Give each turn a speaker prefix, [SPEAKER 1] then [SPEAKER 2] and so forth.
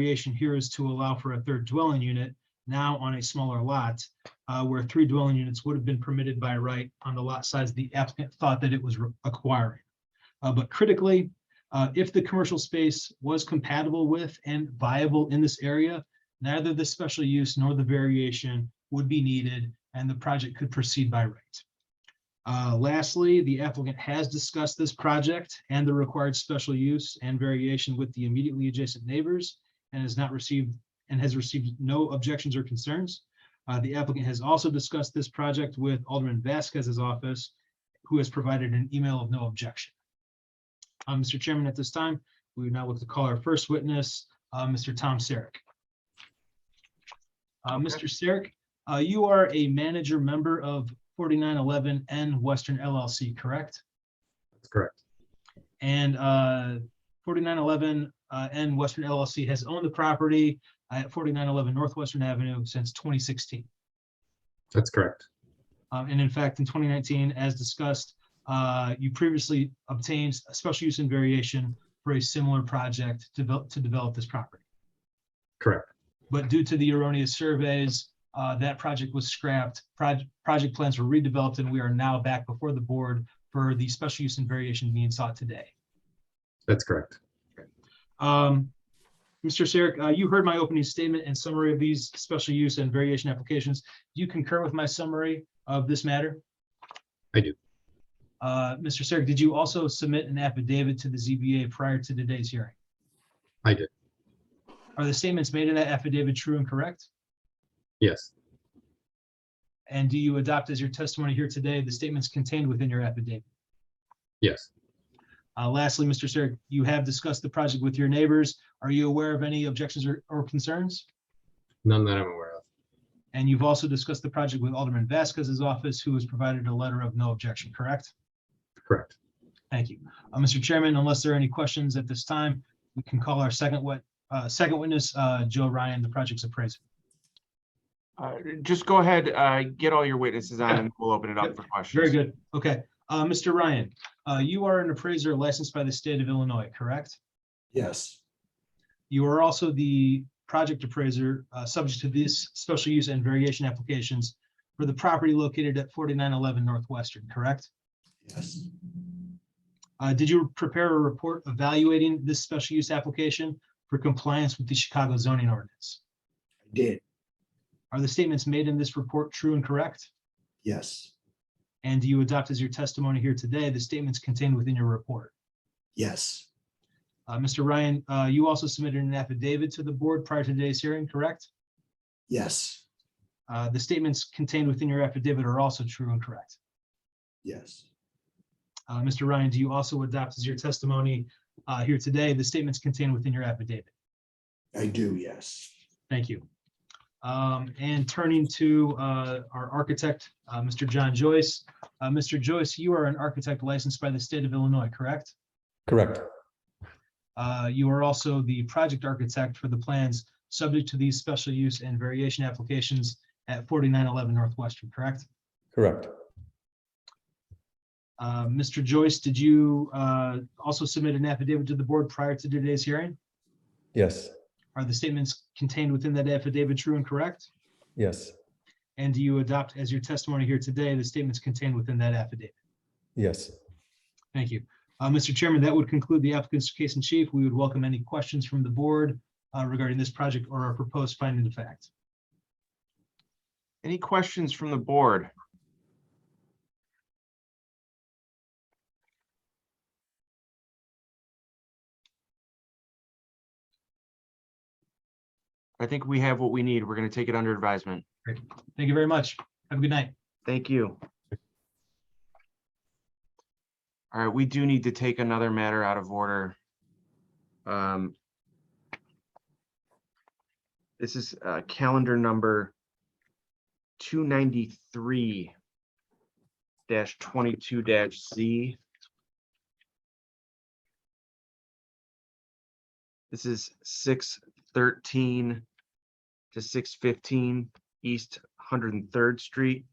[SPEAKER 1] creation here is to allow for a third dwelling unit now on a smaller lot, uh, where three dwelling units would have been permitted by right on the lot size the applicant thought that it was re- acquiring. Uh, But critically, uh, if the commercial space was compatible with and viable in this area, neither the special use nor the variation would be needed, and the project could proceed by right. Uh, Lastly, the applicant has discussed this project and the required special use and variation with the immediately adjacent neighbors and has not received, and has received no objections or concerns. Uh, The applicant has also discussed this project with Alderman Vasquez's office, who has provided an email of no objection. Uh, Mr. Chairman, at this time, we would now look to call our first witness, uh, Mr. Tom Sarek. Uh, Mr. Sarek, uh, you are a manager member of forty-nine eleven N Western LLC, correct?
[SPEAKER 2] That's correct.
[SPEAKER 1] And uh, forty-nine eleven uh, N Western LLC has owned the property at forty-nine eleven Northwestern Avenue since twenty sixteen. Um,
[SPEAKER 2] That's correct.
[SPEAKER 1] And in fact, in twenty nineteen, as discussed, uh, you previously obtained a special use and variation for a similar project to develop, to develop this property.
[SPEAKER 2] Correct.
[SPEAKER 1] But due to the erroneous surveys, uh, that project was scrapped. Proj- Project plans were redeveloped, and we are now back before the board for the special use and variation being sought today.
[SPEAKER 2] That's correct.
[SPEAKER 1] Um, Mr. Sarek, uh, you heard my opening statement and summary of these special use and variation applications. Do you concur with my summary of this matter?
[SPEAKER 2] I do.
[SPEAKER 1] Uh, Mr. Sarek, did you also submit an affidavit to the ZBA prior to today's hearing?
[SPEAKER 2] I did.
[SPEAKER 1] Are the statements made in that affidavit true and correct?
[SPEAKER 2] Yes.
[SPEAKER 1] And do you adopt as your testimony here today the statements contained within your affidavit?
[SPEAKER 2] Yes.
[SPEAKER 1] Uh, lastly, Mr. Sarek, you have discussed the project with your neighbors. Are you aware of any objections or, or concerns?
[SPEAKER 2] None that I'm aware of.
[SPEAKER 1] And you've also discussed the project with Alderman Vasquez's office, who has provided a letter of no objection, correct?
[SPEAKER 2] Correct.
[SPEAKER 1] Thank you. Uh, Mr. Chairman, unless there are any questions at this time, we can call our second wit, uh, second witness, uh, Joe Ryan, the project's appraiser.
[SPEAKER 3] Uh, Just go ahead, uh, get all your witnesses on and we'll open it up for questions.
[SPEAKER 1] Very good. Okay. Uh, Mr. Ryan, uh, you are an appraiser licensed by the state of Illinois, correct?
[SPEAKER 4] Yes,
[SPEAKER 1] You are also the project appraiser, uh, subject to these special use and variation applications for the property located at forty-nine eleven Northwestern, correct?
[SPEAKER 4] yes,
[SPEAKER 1] Uh, did you prepare a report evaluating this special use application for compliance with the Chicago zoning ordinance?
[SPEAKER 4] I did.
[SPEAKER 1] Are the statements made in this report true and correct?
[SPEAKER 4] Yes,
[SPEAKER 1] And do you adopt as your testimony here today the statements contained within your report?
[SPEAKER 4] yes,
[SPEAKER 1] Uh, Mr. Ryan, uh, you also submitted an affidavit to the board prior to today's hearing, correct?
[SPEAKER 4] yes,
[SPEAKER 1] Uh, the statements contained within your affidavit are also true and correct.
[SPEAKER 4] yes,
[SPEAKER 1] Uh, Mr. Ryan, do you also adopt as your testimony uh, here today the statements contained within your affidavit?
[SPEAKER 4] I do, yes.
[SPEAKER 1] Thank you. Um, And turning to uh, our architect, uh, Mr. John Joyce. Uh, Mr. Joyce, you are an architect licensed by the state of Illinois, correct?
[SPEAKER 5] Correct.
[SPEAKER 1] Uh, You are also the project architect for the plans subject to these special use and variation applications at 4911 Northwestern, correct?
[SPEAKER 5] Correct.
[SPEAKER 1] Uh, Mr. Joyce, did you uh, also submit an affidavit to the board prior to today's hearing?
[SPEAKER 5] Yes.
[SPEAKER 1] Are the statements contained within that affidavit true and correct?
[SPEAKER 5] Yes.
[SPEAKER 1] And do you adopt as your testimony here today the statements contained within that affidavit?
[SPEAKER 5] Yes.
[SPEAKER 1] Thank you. Uh, Mr. Chairman, that would conclude the applicant's case in chief. We would welcome any questions from the board uh, regarding this project or our proposed finding of fact.
[SPEAKER 3] Any questions from the board? I think we have what we need. We're going to take it under advisement.
[SPEAKER 1] Thank you very much. Have a good night.
[SPEAKER 3] Thank you. All right, we do need to take another matter out of order. Um, This is uh, calendar number 293 dash 22 dash Z. This is 613 to 615 East 103rd Street.